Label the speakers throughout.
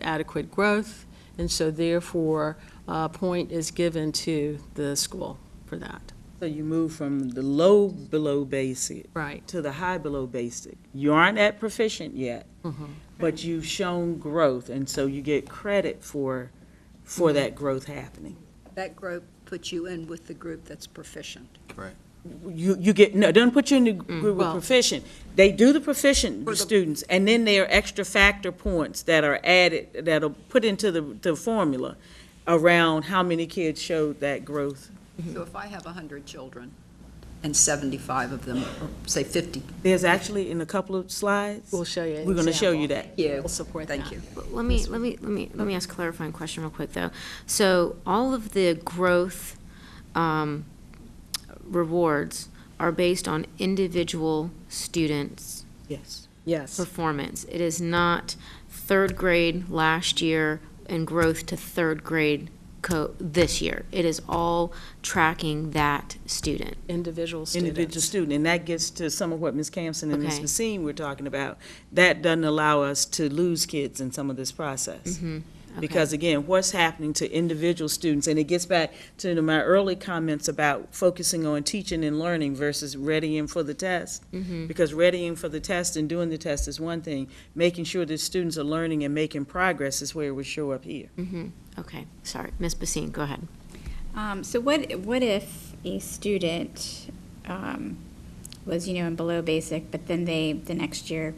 Speaker 1: adequate growth, and so therefore, a point is given to the school for that.
Speaker 2: So you move from the low below basic
Speaker 1: Right,
Speaker 2: to the high below basic. You aren't at proficient yet,
Speaker 1: Mm-hmm.
Speaker 2: but you've shown growth, and so you get credit for,
Speaker 1: Mm-hmm.
Speaker 2: for that growth happening.
Speaker 3: That group puts you in with the group that's proficient.
Speaker 2: You, you get, no, don't put you in the group with
Speaker 1: Mm, well-
Speaker 2: proficient. They do the proficient
Speaker 3: For the-
Speaker 2: students, and then there are extra factor points that are added, that are put into the, the formula around how many kids showed that growth.
Speaker 3: So if I have 100 children and 75 of them, or say 50.
Speaker 2: There's actually in a couple of slides.
Speaker 1: we'll show you. an
Speaker 2: We're gonna show you
Speaker 1: example.
Speaker 2: that.
Speaker 3: Yeah.
Speaker 1: We'll support that.
Speaker 3: Thank you.
Speaker 4: Let me, let me, let me, let me ask a clarifying question real quick, though. So all of the growth um, rewards are based on individual students'
Speaker 2: Yes. Yes.
Speaker 4: performance. It is not third grade last year and growth to third grade co, this year. It is all tracking that student.
Speaker 1: Individual
Speaker 2: individual
Speaker 1: students.
Speaker 2: student, and that gets to some of what Ms. Campson and Ms.
Speaker 4: Okay.
Speaker 2: Messine were talking about. That doesn't allow us to lose kids in some of this process. Because again, what's happening to individual students, and it gets back to my early comments about focusing on teaching and learning versus readying for the test. Because readying for the test and doing the test is one thing, making sure that students are learning and making progress is where it would show up here.
Speaker 4: hmm okay, sorry. Ms. Basine, go ahead.
Speaker 5: Um, so what, what if a student, um, was, you know, in below basic, but then they, the next year,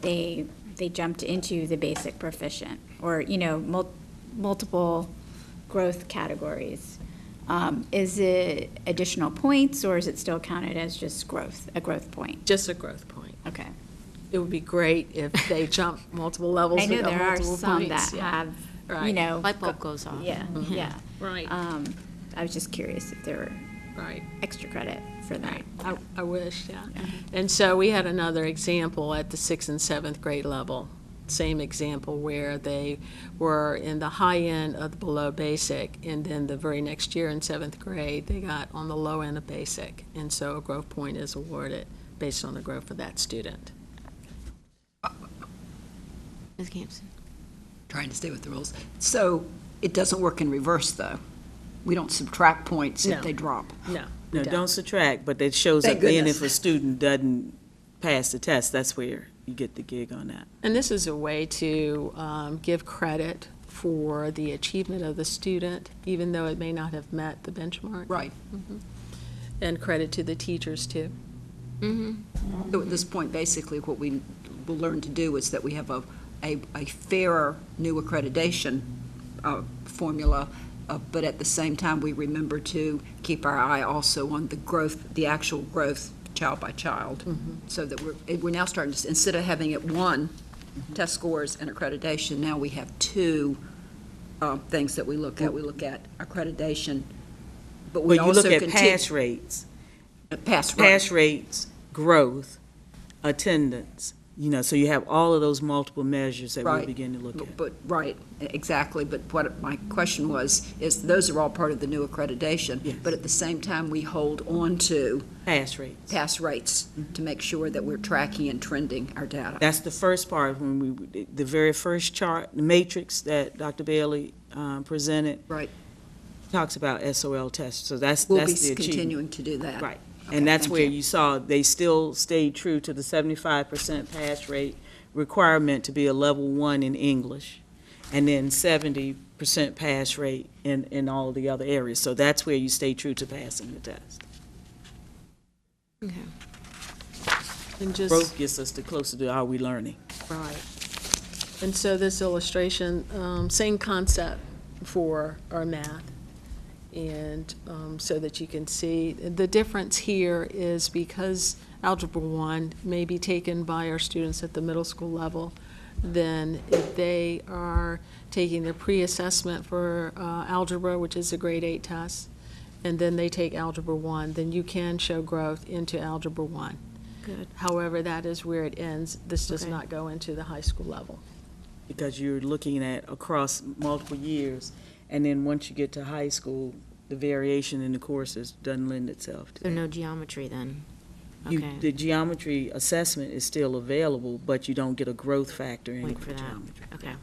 Speaker 5: they, they jumped into the basic proficient, or, you know, mul- multiple growth categories? Um, is it additional points, or is it still counted as just growth, a growth point?
Speaker 1: Just a growth point.
Speaker 5: Okay.
Speaker 1: It would be great if they jump multiple levels.
Speaker 5: I
Speaker 1: we
Speaker 5: know
Speaker 1: got
Speaker 5: there are
Speaker 1: multiple
Speaker 5: some
Speaker 1: points,
Speaker 5: that
Speaker 1: yeah.
Speaker 5: have, you
Speaker 1: Right. Mm-hmm.
Speaker 5: know.
Speaker 4: Light bulb goes off.
Speaker 5: Yeah, yeah.
Speaker 1: Right,
Speaker 5: Um, I was just curious if there were
Speaker 1: right.
Speaker 5: extra credit for that.
Speaker 1: I, I wish, yeah. And so we had another example at the sixth and seventh grade level, same example where they were in the high end of the below basic, and then the very next year in seventh grade, they got on the low end of basic. And so a growth point is awarded based on the growth of that student.
Speaker 4: Ms. Campson.
Speaker 3: Trying to stay with the rules. So it doesn't work in reverse, though. We don't subtract points
Speaker 1: No.
Speaker 3: if they drop.
Speaker 1: No.
Speaker 2: No, don't subtract, but it shows up
Speaker 3: Thank
Speaker 2: then if
Speaker 3: goodness.
Speaker 2: a student doesn't pass the test, that's where you get the gig on that.
Speaker 1: And this is a way to um, give credit for the achievement of the student, even though it may not have met the benchmark.
Speaker 3: Right.
Speaker 1: And credit to the teachers, too.
Speaker 3: So at this point, basically, what we will learn to do is that we have a, a, a fairer new accreditation uh, formula, uh, but at the same time, we remember to keep our eye also on the growth, the actual growth, child by child,
Speaker 2: Mm-hmm.
Speaker 3: so that we're, eh, we're now starting to, s- instead of having it one,
Speaker 2: Mm-hmm.
Speaker 3: test scores and accreditation, now we have two uh, things that we look at. We look at accreditation, but we
Speaker 2: But you
Speaker 3: also
Speaker 2: look
Speaker 3: continue.
Speaker 2: at pass rates,
Speaker 3: Pass, right.
Speaker 2: pass rates, growth, attendance, you know, so you have all of those multiple measures that we
Speaker 3: Right. Mm-hmm.
Speaker 2: begin to look at.
Speaker 3: But- But, right, e-, exactly, but what my question was, is those are all part of the new
Speaker 2: Yes.
Speaker 3: accreditation, but at the same time, we hold on to
Speaker 2: Pass rates.
Speaker 3: pass rates
Speaker 2: Mm-hmm.
Speaker 3: to make sure that we're tracking and trending our data.
Speaker 2: That's the first part, when we, the very first chart, the matrix that Dr. Bailey um, presented
Speaker 3: Right,
Speaker 2: talks about SOL tests, so that's,
Speaker 3: we'll be
Speaker 2: that's the achievement.
Speaker 3: continuing to do that.
Speaker 2: Right.
Speaker 3: Okay,
Speaker 2: And that's
Speaker 3: thank
Speaker 2: where
Speaker 3: you.
Speaker 2: you saw, they still stayed true to the seventy-five percent pass rate requirement to be a level one in English, and then seventy percent pass rate in, in all the other areas. So that's where you stay true to passing the test.
Speaker 4: Okay.
Speaker 1: And just.
Speaker 2: Growth gets us the closer to are we learning?
Speaker 1: Right. And so this illustration, um, same concept for our math. And um, so that you can see, the difference here is because Algebra 1 may be taken by our students at the middle school level, then if they are taking their pre-assessment for uh, algebra, which is a grade 8 test, and then they take Algebra 1, then you can show growth into Algebra 1.
Speaker 4: Good.
Speaker 1: However, that is where it ends. This does
Speaker 4: Okay.
Speaker 1: not go into the high school level.
Speaker 2: Because you're looking at across multiple years, and then once you get to high school, the variation in the courses doesn't lend itself to
Speaker 4: So
Speaker 2: that.
Speaker 4: no geometry then?
Speaker 2: You,
Speaker 4: Okay.
Speaker 2: the geometry assessment is still available, but you don't get a growth factor in
Speaker 4: Point for that.
Speaker 2: geometry.
Speaker 4: Okay.